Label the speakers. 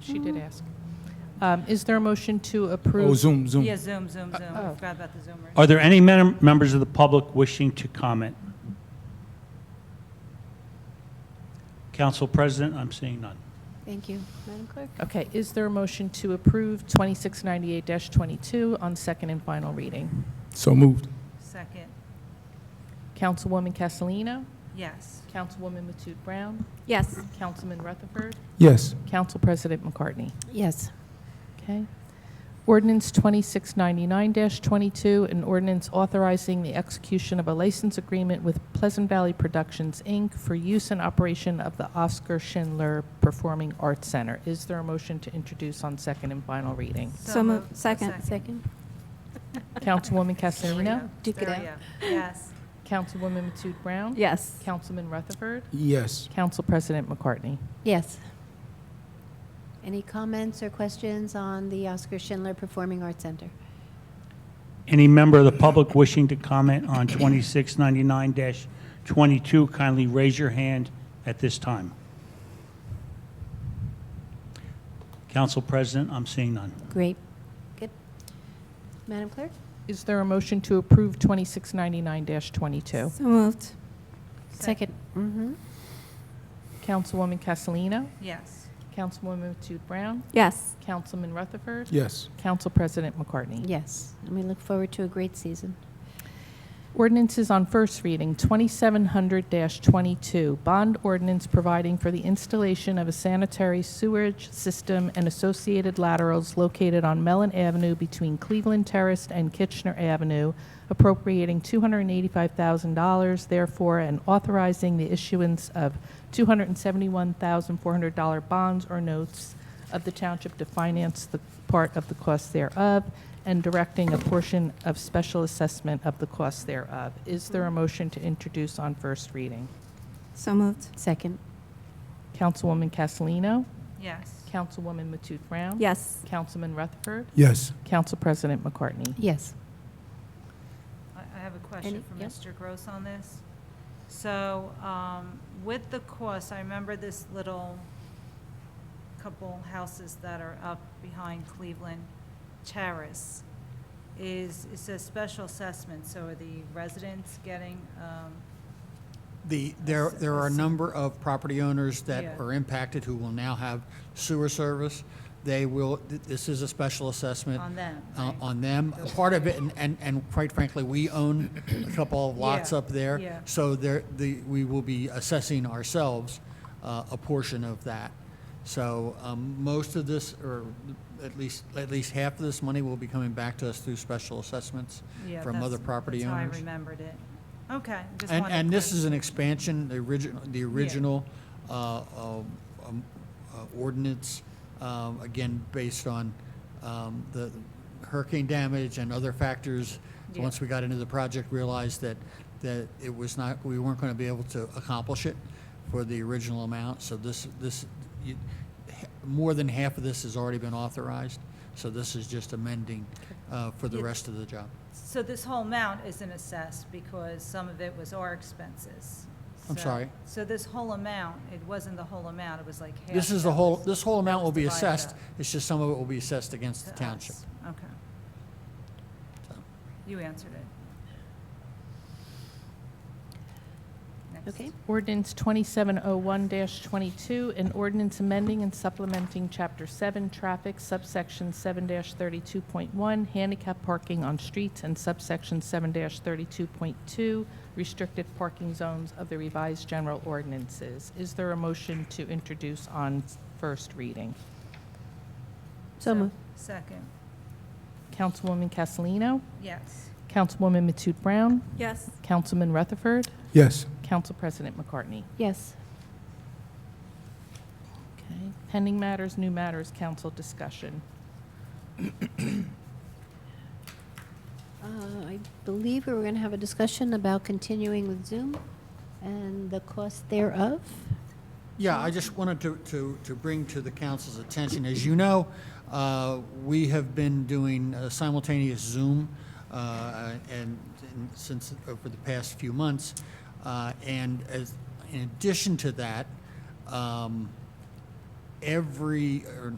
Speaker 1: She did ask. Um, Is there a motion to approve?
Speaker 2: Oh, Zoom, Zoom.
Speaker 3: Yeah, Zoom, Zoom, Zoom. I
Speaker 1: oh.
Speaker 3: forgot about the Zoomers.
Speaker 4: Uh, Are there any men- members of the public wishing to comment? Council President, I'm seeing none.
Speaker 5: Thank you. Madam Clerk?
Speaker 1: Okay, is there a motion to approve 2698-22 on second and final reading?
Speaker 2: So moved.
Speaker 3: Second,
Speaker 1: Councilwoman Castellino?
Speaker 3: yes.
Speaker 1: Councilwoman Matute Brown?
Speaker 5: Yes.
Speaker 1: Councilman Rutherford?
Speaker 2: Yes.
Speaker 1: Council President McCartney?
Speaker 5: Yes.
Speaker 1: Okay. Ordinance 2699-22, an ordinance authorizing the execution of a license agreement with Pleasant Valley Productions, Inc. for use and operation of the Oscar Schindler Performing Arts Center. Is there a motion to introduce on second and final reading?
Speaker 5: So moved. Second.
Speaker 1: Councilwoman Castellino?
Speaker 5: Duke it
Speaker 3: There
Speaker 5: out.
Speaker 3: we go. Yes,
Speaker 1: Councilwoman Matute Brown?
Speaker 5: Yes.
Speaker 1: Councilman Rutherford?
Speaker 2: Yes.
Speaker 1: Council President McCartney?
Speaker 5: Yes. Any comments or questions on the Oscar Schindler Performing Arts Center?
Speaker 4: Any member of the public wishing to comment on 2699-22, kindly raise your hand at this time. Council President, I'm seeing none.
Speaker 5: Great. Good. Madam Clerk?
Speaker 1: Is there a motion to approve 2699-22?
Speaker 5: So moved.
Speaker 3: Second.
Speaker 5: Second. Mm-hmm.
Speaker 1: Councilwoman Castellino?
Speaker 3: yes.
Speaker 1: Councilwoman Matute Brown?
Speaker 5: Yes.
Speaker 1: Councilman Rutherford?
Speaker 2: Yes.
Speaker 1: Council President McCartney?
Speaker 5: Yes. And we look forward to a great season.
Speaker 1: Ordinances on first reading, 2700-22, bond ordinance providing for the installation of a sanitary sewage system and associated laterals located on Mellon Avenue between Cleveland Terrace and Kitchener Avenue, appropriating $285,000, therefore, and authorizing the issuance of $271,400 bonds or notes of the township to finance the part of the cost thereof and directing a portion of special assessment of the cost thereof. Is there a motion to introduce on first reading?
Speaker 5: So moved. Second.
Speaker 1: Councilwoman Castellino?
Speaker 3: Yes.
Speaker 1: Councilwoman Matute Brown?
Speaker 5: Yes.
Speaker 1: Councilman Rutherford?
Speaker 2: Yes.
Speaker 1: Council President McCartney?
Speaker 5: Yes.
Speaker 3: I I have a
Speaker 5: Any-
Speaker 3: question for
Speaker 5: yep.
Speaker 3: Mr. Gross on this. So um, with the cost, I remember this little couple houses that are up behind Cleveland Terrace is, it says special assessment, so are the residents getting, um,
Speaker 6: The, there, there are a number of property owners
Speaker 3: Yeah.
Speaker 6: that are impacted who will now have sewer service. They will, th- this is a special assessment.
Speaker 3: On them,
Speaker 6: uh,
Speaker 3: right.
Speaker 6: On them. A Part of it, and- and, and quite frankly, we own a couple of lots
Speaker 3: Yeah,
Speaker 6: up there.
Speaker 3: yeah.
Speaker 6: So there, the, we will be assessing ourselves uh, a portion of that. So um, most of this, or at least, at least half of this money will be coming back to us through special assessments
Speaker 3: yeah.
Speaker 6: from
Speaker 3: that's-
Speaker 6: other property
Speaker 3: that's how
Speaker 6: owners.
Speaker 3: I remembered it. Okay. just
Speaker 6: And,
Speaker 3: wanted
Speaker 6: and this
Speaker 3: clar-
Speaker 6: is an expansion, the original, the original uh, um, um, uh, ordinance, um, again, based on um, the hurricane damage and other factors.
Speaker 3: Yeah.
Speaker 6: Once we got into the project, realized that, that it was not, we weren't going to be able to accomplish it for the original amount. So this, this, you- h- more than half of this has already been authorized. So this is just amending uh, for the
Speaker 3: Yeah.
Speaker 6: rest of the job.
Speaker 3: So this whole amount isn't assessed because some of it was our expenses.
Speaker 6: I'm
Speaker 3: So-
Speaker 6: sorry?
Speaker 3: So this whole amount, it wasn't the whole amount, it was like half.
Speaker 6: This is the
Speaker 3: that
Speaker 6: whole,
Speaker 3: was
Speaker 6: this whole amount will be
Speaker 3: divided
Speaker 6: assessed,
Speaker 3: up
Speaker 6: it's just some of it will be assessed against the
Speaker 3: to
Speaker 6: township.
Speaker 3: us. Okay.
Speaker 6: So,
Speaker 3: You answered it. Next.
Speaker 5: Okay.
Speaker 1: Ordinance 2701-22, an ordinance amending and supplementing Chapter 7 Traffic, subsection 7-32.1, handicap parking on streets, and subsection 7-32.2, restricted parking zones of the revised general ordinances. Is there a motion to introduce on first reading?
Speaker 5: So moved.
Speaker 3: Second,
Speaker 1: Councilwoman Castellino?
Speaker 3: yes.
Speaker 1: Councilwoman Matute Brown?
Speaker 5: Yes.
Speaker 1: Councilman Rutherford?
Speaker 2: Yes.
Speaker 1: Council President McCartney?
Speaker 5: Yes.
Speaker 1: Okay. Pending matters, new matters, council discussion.
Speaker 5: Uh, I believe we were going to have a discussion about continuing with Zoom and the cost thereof.
Speaker 6: Yeah, I just wanted to, to, to bring to the council's attention, as you know, uh, we have been doing uh, simultaneous Zoom, uh, and, and since, over the past few months. Uh, and as, in addition to that, um, every, or